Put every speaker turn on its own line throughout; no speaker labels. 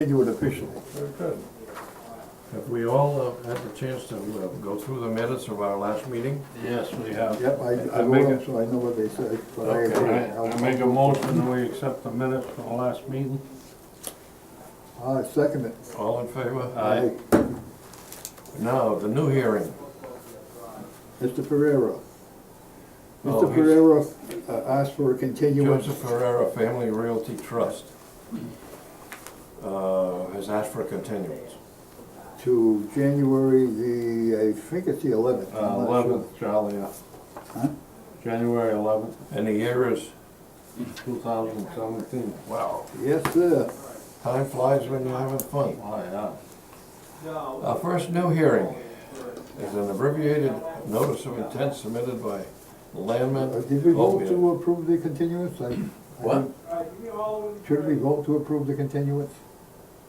Continue it officially.
Very good. Have we all uh, had the chance to uh, go through the minutes of our last meeting?
Yes, we have.
Yep, I, I
I make
wrote them,
a-
so I know what they said, but I agree.
Okay, I I make a motion that we accept the minutes from the last meeting.
I second it.
All in favor?
Aye.
Now, the new hearing.
Mr. Ferrero.
Oh,
Mr.
he's-
Ferrero uh, asked for a continuance.
Joseph Ferrera Family Realty Trust uh, has asked for a continuance.
to January the, I think it's the eleventh.
Eleventh, Charlie, uh,
Huh?
January eleventh,
And the year is,
two thousand seventeen.
wow,
Yes, sir.
time flies when you're having fun.
Oh, yeah.
Our first new hearing is an abbreviated notice of intent submitted by Landman.
Uh, Did we vote
Oviatt.
to approve the continuance? I- I
What?
think- Should we vote to approve the continuance?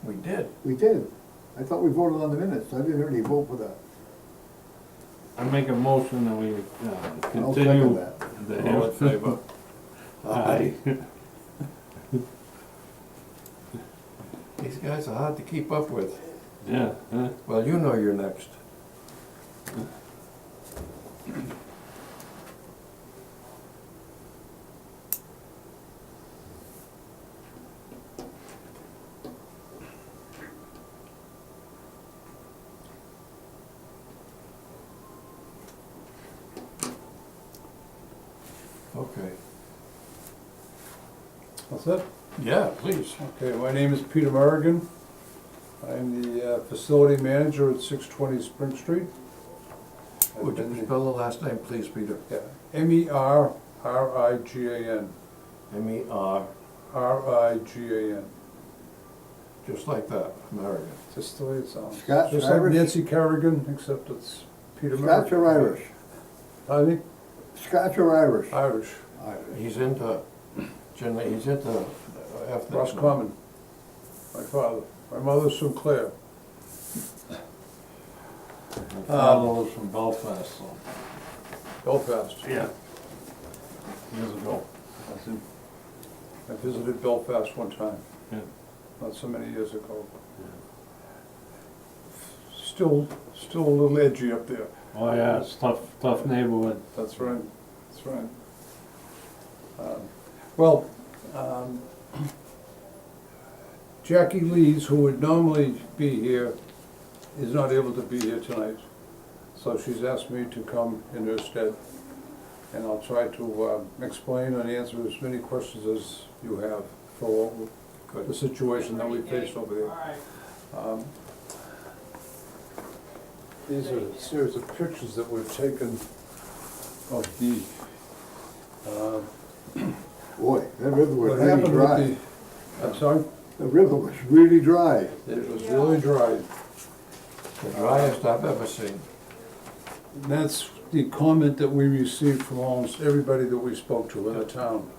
We did.
We did. I thought we voted on the minutes. I didn't really vote for that.
I make a motion that we uh,
I'll
continue.
second that.
the
All in favor?
Aye.
These guys are hard to keep up with.
Yeah, huh?
Well, you know you're next. Okay.
That's it?
Yeah, please.
Okay, my name is Peter Merrigan. I'm the uh, facility manager at 620 Spring Street. I've
Would
been
you
the-
spell the last name, please, Peter?
yeah, E M-E-R-R-I-G-A-N,
M E R,
R-I-G-A-N,
just like that, American.
just the way it sounds.
Scots
Just
or
like
Irish?
Nancy Kerrigan, except it's Peter Merrigan.
Scotch or Irish?
I think
Scotch or Irish?
Irish,
Irish.
He's into, generally, he's into ethnic.
Ross Common, my father. My mother's Sinclair.
My father was from Belfast, so,
Belfast.
yeah. Years ago. That's it.
I visited Belfast one time.
Yeah.
Not so many years ago. Still, still a little edgy up there.
Oh, yeah, it's tough, tough neighborhood.
That's right, that's right. Um, Well, um, Jackie Lees, who would normally be here, is not able to be here tonight. So she's asked me to come in her stead. And I'll try to um, explain and answer as many questions as you have for what- the situation that we face over there. Um, These are a series of pictures that we've taken of the, uh,
Boy, that river was
what
really
happened with
dry.
the, I'm sorry,
The river was really dry.
it was really dry.
The driest I've ever seen.
And that's the comment that we received from almost everybody that we spoke to in the town.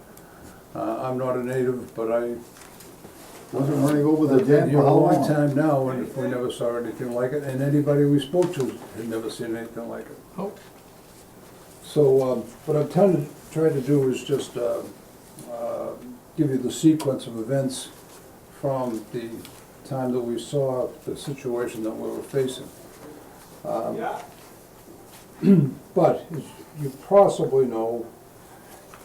Uh, I'm not a native, but I,
Wasn't running over the
I've been
dam
here
for
a
how
long
long?
time now, and we never saw anything like it, and anybody we spoke to had never seen anything like it.
Oh,
So, um, what I'm trying to, trying to do is just, uh, uh, give you the sequence of events from the time that we saw the situation that we were facing. Um, But, as you possibly know,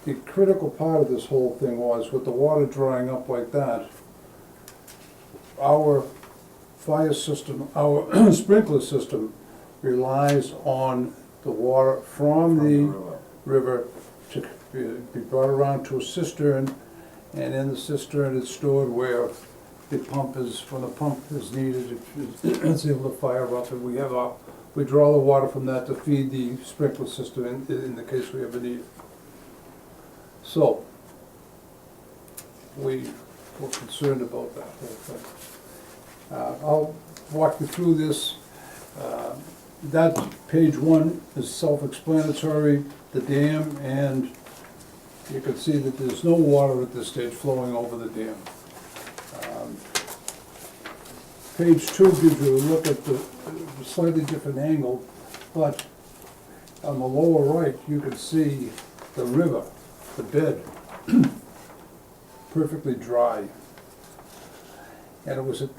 the critical part of this whole thing was with the water drying up like that, our fire system, our sprinkler system relies on the water from
From the
the
river.
river to be- be brought around to a cistern, and in the cistern it's stored where the pump is, when the pump is needed, it- it's able to fire up, and we have our, we draw the water from that to feed the sprinkler system in, in the case we ever need it. So, we were concerned about that whole thing. Uh, I'll walk you through this. Uh, That, page one is self-explanatory, the dam, and you can see that there's no water at this stage flowing over the dam. Um, Page two gives you a look at the a slightly different angle, but on the lower right, you can see the river, the bed, perfectly dry. And it was at